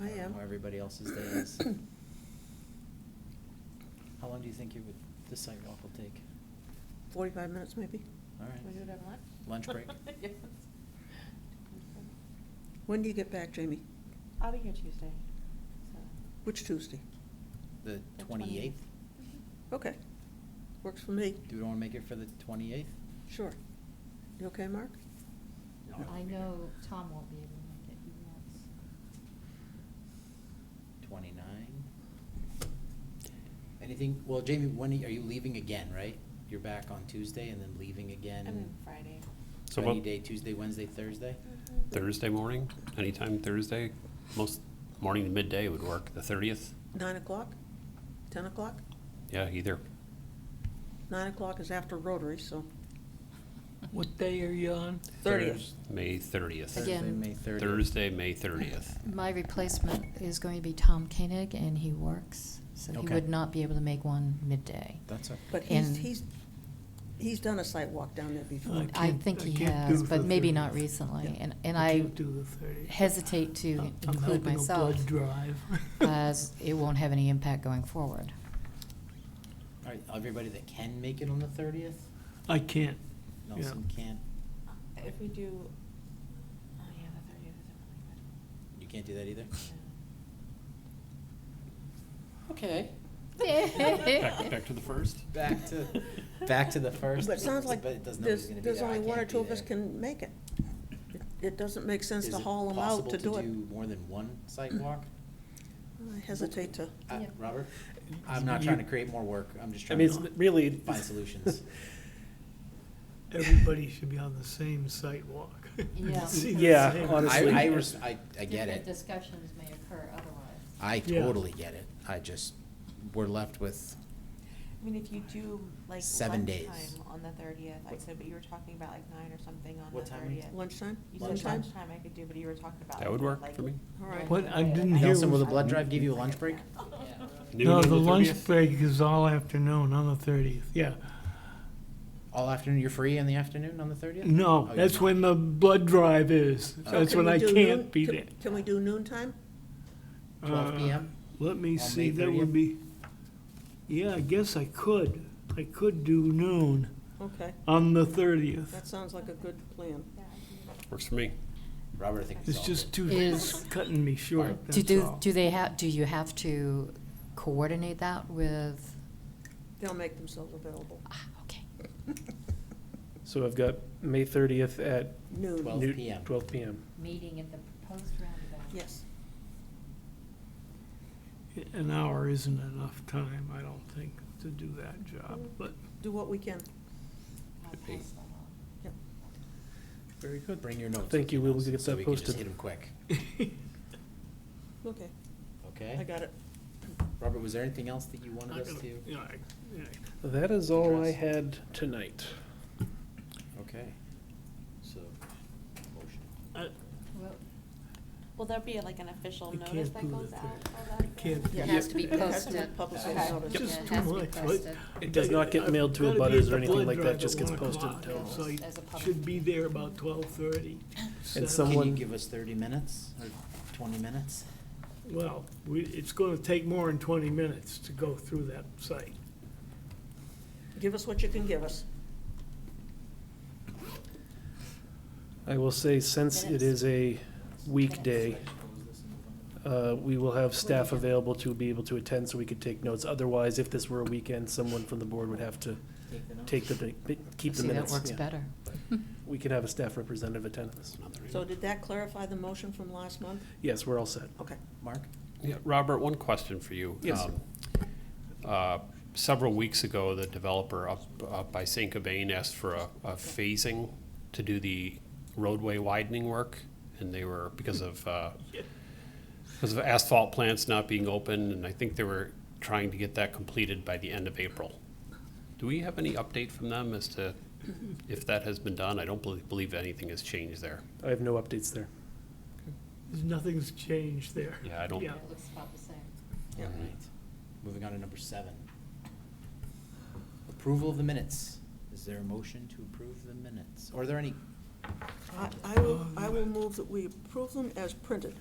I don't know am. How everybody else's day is. How long do you think you would, this sidewalk will take? Forty-five minutes, maybe? All Can we do it right. over lunch? Lunch break? Yes. When do you get back, Jamie? I'll be here Tuesday, so. Which Tuesday? The the twenty-eighth? Okay, works for me, Do we want to make it for the twenty-eighth? sure. You okay, Mark? I know Tom won't be able to make it, he wants. Twenty-nine? Anything, well, Jamie, when are you- are you leaving again, right? You're back on Tuesday and then leaving again? I'm Mm. in Friday. So Any what- day, Tuesday, Wednesday, Thursday? Thursday morning, anytime Thursday, most morning to midday would work, the thirtieth, Nine o'clock? Ten o'clock? yeah, either. Nine o'clock is after Rotary, so What day are you on? thirtieth. May thirtieth. Thursday, Again. May thirtieth. Thursday, May thirtieth. My replacement is going to be Tom Koenig, and he works, so he Okay. would not be able to make one midday. That's okay. But he's, And- he's, he's done a site walk down there before. I I can't- think I he can't has, do but the maybe not 30th. recently, Yeah, and- and I can't do the 30th. hesitate to I'm- include myself, I'm helping a blood drive. As it won't have any impact going forward. All right, everybody that can make it on the thirtieth? I can't. Yeah. Nelson can't, Uh, If we do, oh yeah, the thirtieth isn't you can't do that either? really good. Okay. Back, back to the first? Back to, back to the first. But it sounds like But it doesn't, nobody's there's, gonna be there's there. I only one or can't be two of us there. can make it. It- It doesn't make sense Is to it haul them out to do it. Possible to do more than one sidewalk? I hesitate to, Uh, Yeah. Robert? I'm not You- trying to create more work, I'm just I trying mean, it's to really. find solutions. Everybody should be on the same sidewalk. Yeah. See the Yeah, same- honestly. I, I, res- I, I get it, discussions may occur otherwise. I Yeah. totally get it, I just, we're left with, I mean, if you do like Seven days. lunchtime on the thirtieth, I said, but you were talking about like nine or something on What the time? thirtieth. lunchtime? You said Lunchtime? lunchtime I could do, but you were talking about. That would work like- for me. All right. What, I didn't hear. Nelson, will the was- blood drive give you a lunch break? Noon No, on the lunch 30th? break is all afternoon on the thirtieth, yeah. All afternoon, you're free in the afternoon on the thirtieth? No, that's when the blood drive is. So That's Can when we I do can't noon- be can- there. Can we do noontime? Twelve Uh, PM? Let me May see, that would 30th? be, yeah, I guess I could. I could do noon Okay, on the thirtieth. that sounds like a good plan. Works for me. Robert, I think we It's solved it. just too, Is- it's cutting me short, Do, that's do, all. do they have, do you have to coordinate that with, They'll make themselves available. ah, okay. So I've got May thirtieth at Noon, Twelve noon- PM. Twelve PM. Meeting at the proposed roundabout. yes. An hour isn't enough time, I don't think, to do that job, but Do what we can. I'll Could be. pass that on. very good. Bring your notes. Thank you, we will Nelson, get so that we can just posted. Hit him quick, Okay, I okay? got it. Robert, was there anything else that you wanted us to? Yeah, I- yeah, That is all I Address. had tonight. Okay, so, motion. Well, Will there be like an official I notice can't that do goes the out? Oh, third. for that I can't then? It Yeah. has to be It has to be posted. published Okay. notice. Yeah, Just it too has to be much, right? posted. It does not get mailed to Gotta be abutters at or the anything blood like that, drive just at gets one posted o'clock, until. Yes. So you As a public- should be there about twelve-thirty. And Can you Someone- give us thirty minutes or twenty minutes? Well, we, it's gonna take more than twenty minutes to go through that site. Give us what you can give us. I will say, since it is a weekday, uh, we will have staff available to be able to attend so we could take notes. Otherwise, if this were a weekend, someone from the board would have to take the, keep the See, that minutes. works Yeah. better. We could have a staff representative attend this. So did that clarify the motion from last month? Yes, we're all set. Okay. Mark? Yeah, Robert, one question for you. Yes, sir. Um, uh, Several weeks ago, the developer up, up by St. Cobain asked for a, a phasing to do the roadway widening work, and they were, because of, uh, because of asphalt plants not being open, and I think they were trying to get that completed by the end of April. Do we have any update from them as to if that has been done? I don't believe, believe anything has changed there. I have no updates there. Nothing's changed there. Yeah, I don't- Yeah. It looks about the same. All right. Moving on to number seven. Approval of the minutes. Is there a motion to approve the minutes? Are there any, I, I will, I will move that we approve them as printed.